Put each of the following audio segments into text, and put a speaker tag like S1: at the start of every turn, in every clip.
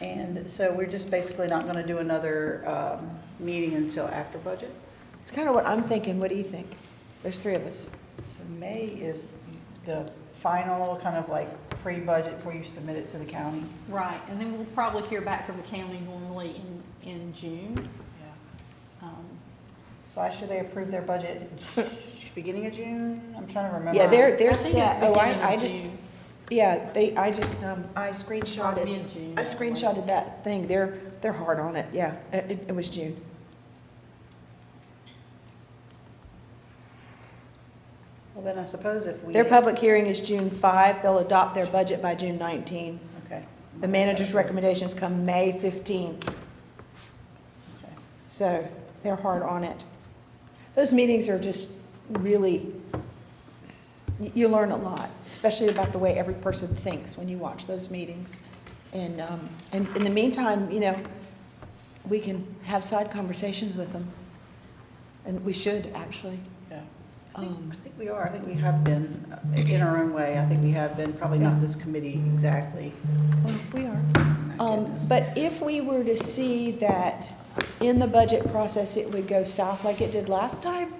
S1: And so we're just basically not going to do another um, meeting until after budget.
S2: It's kind of what I'm thinking. What do you think? There's three of us.
S1: So May is the final kind of like pre-budget before you submit it to the county.
S3: Right, and then we'll probably hear back from the county normally in, in June. Um,
S1: So I should they approve their budget beginning of June? I'm trying to remember.
S2: Yeah, they're,
S3: I
S2: they're
S3: think it's
S2: set. Oh,
S3: beginning
S2: I, I
S3: of
S2: just,
S3: June.
S2: yeah, they, I just, um, I
S3: Or
S2: screenshotted,
S3: mid-June.
S2: I screenshotted that thing. They're, they're hard on it. Yeah, it, it- it was June.
S1: Well, then I suppose if we.
S2: Their public hearing is June 5. They'll adopt their budget by June 19.
S1: Okay.
S2: The manager's recommendations come May 15.
S1: Okay.
S2: So they're hard on it. Those meetings are just really, y- you learn a lot, especially about the way every person thinks when you watch those meetings. And, um, and in the meantime, you know, we can have side conversations with them. And we should, actually.
S1: Yeah. I think
S2: Um,
S1: I think we are, I think we have been, uh, in our own way, I think we have been, probably not this committee exactly. Oh
S2: Well, We are.
S1: My
S2: Um,
S1: goodness.
S2: But if we were to see that in the budget process, it would go south like it did last time,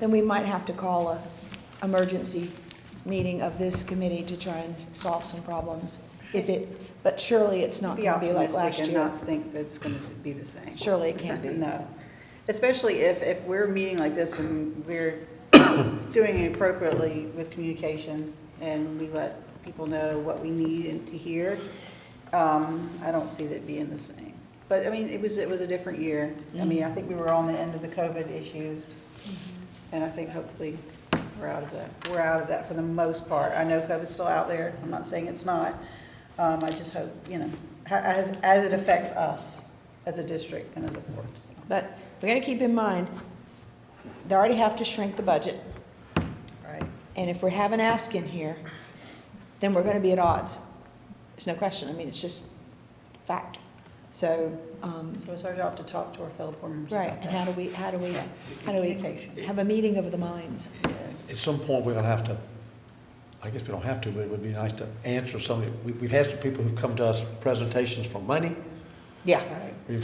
S2: then we might have to call a emergency meeting of this committee to try and solve some problems. If it, but surely it's not
S1: Be
S2: going to be like last
S1: optimistic and
S2: year.
S1: not think that's going to be the same.
S2: Surely it can't be.
S1: No. Especially if, if we're meeting like this and we're doing it appropriately with communication and we let people know what we need and to hear, um, I don't see that being the same. But, I mean, it was, it was a different year. I mean, I think we were on the end of the COVID issues.
S2: Mm-hmm.
S1: And I think hopefully we're out of that, we're out of that for the most part. I know COVID's still out there, I'm not saying it's not. Um, I just hope, you know, ha- as, as it affects us as a district and as a board. so.
S2: But we got to keep in mind, they already have to shrink the budget.
S1: Right.
S2: And if we have an ask in here, then we're going to be at odds. There's no question. I mean, it's just fact. So, um,
S1: So it's our job to talk to our fellow board members
S2: Right,
S1: about
S2: and how
S1: that.
S2: do we, how do we, how do we
S1: Communication.
S2: have a meeting of the minds?
S1: Yes.
S4: At some point, we're gonna have to, I guess we don't have to, but it would be nice to answer some, of the- we, we've had some people who've come to us presentations for money.
S2: Yeah.
S1: Right,
S4: We've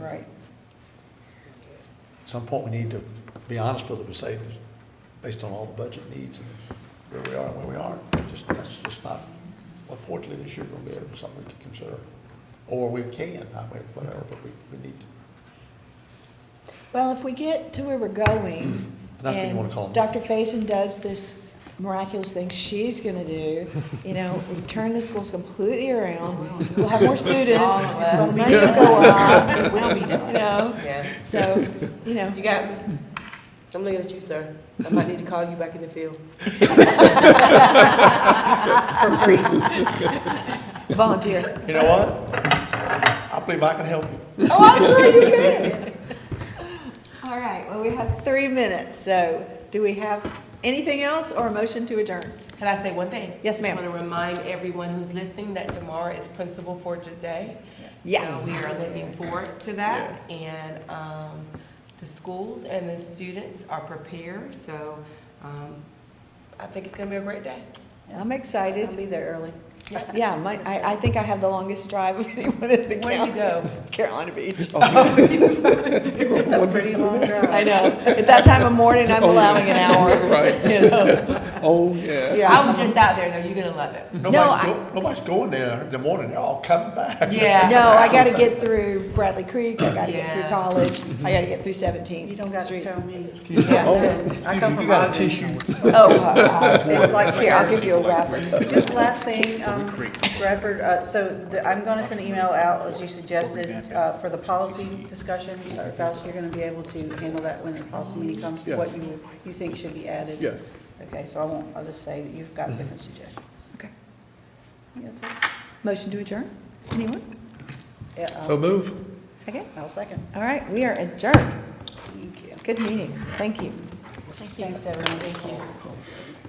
S1: Right,
S4: at some point, we need to be honest with them and say, based on all the budget needs and where we are and where we aren't, just, that's just not, unfortunately, this year gonna be something we can consider. Or we can, I mean, whatever, but we, we need to.
S2: Well, if we get to where we're going,
S4: And I think you wanna call
S2: and
S4: them.
S2: Dr. Faison does this miraculous thing she's gonna do, you know, we turn the schools completely around, we'll have more students,
S5: All of
S2: it's gonna
S5: us.
S2: money will go up,
S5: It will be done.
S2: you know,
S5: Yeah,
S2: so, you know,
S5: you got me. I'm looking at you, sir. I might need to call you back in the field.
S1: for free.
S2: volunteer.
S4: You know what? I believe I can help you.
S2: Oh, I'm sure you can. All right, well, we have three minutes, so do we have anything else or a motion to adjourn?
S5: Can I say one thing?
S2: Yes, ma'am.
S5: Just want to remind everyone who's listening that tomorrow is Principal Fortune Day.
S2: Yes.
S5: So we are looking forward to that, and um, the schools and the students are prepared, so um, I think it's going to be a great day.
S2: I'm excited.
S1: I'll be there early.
S2: Yeah, my, I, I think I have the longest drive of anyone in the
S5: Where do
S2: county.
S5: you go?
S2: Carolina Beach.
S1: It's a pretty long drive.
S2: I know. At that time of morning,
S5: Oh,
S2: I'm allowing an hour,
S6: Right.
S2: you know.
S6: Oh, yeah.
S5: I was just out there, though. You're going to love it.
S4: Nobody's
S2: I-
S4: go, nobody's going there in the morning, they're all coming back.
S5: Yeah.
S2: No, I gotta get through Bradley Creek, I gotta get through
S5: Yeah.
S2: college, I gotta get through
S1: You
S2: Seventeenth
S1: don't got to
S2: Street.
S1: tell me.
S2: Yeah.
S1: I come
S4: You-
S1: from
S4: you got a
S1: Ogden.
S4: tissue?
S2: Oh, uh,
S1: It's like
S2: here, I'll give you a wrap.
S1: Just last thing, um, Bradford, uh, so the- I'm going to send an email out, as you suggested, uh, for the policy discussion. Dr. Faust, you're going to be able to handle that when the policy meeting comes? What
S6: Yes.
S1: you, you think should be added?
S6: Yes. Mm-hmm.
S1: Okay, so I won't, I'll just say that you've got different suggestions.
S2: Okay.
S1: That's it.
S2: Motion to adjourn? Anyone?
S1: Yeah, I'll-
S6: So move.
S2: Second?
S1: I'll second.
S2: All right, we are adjourned.
S1: Thank you.
S2: Good meeting. Thank you.
S1: Thanks, everyone. Thank you.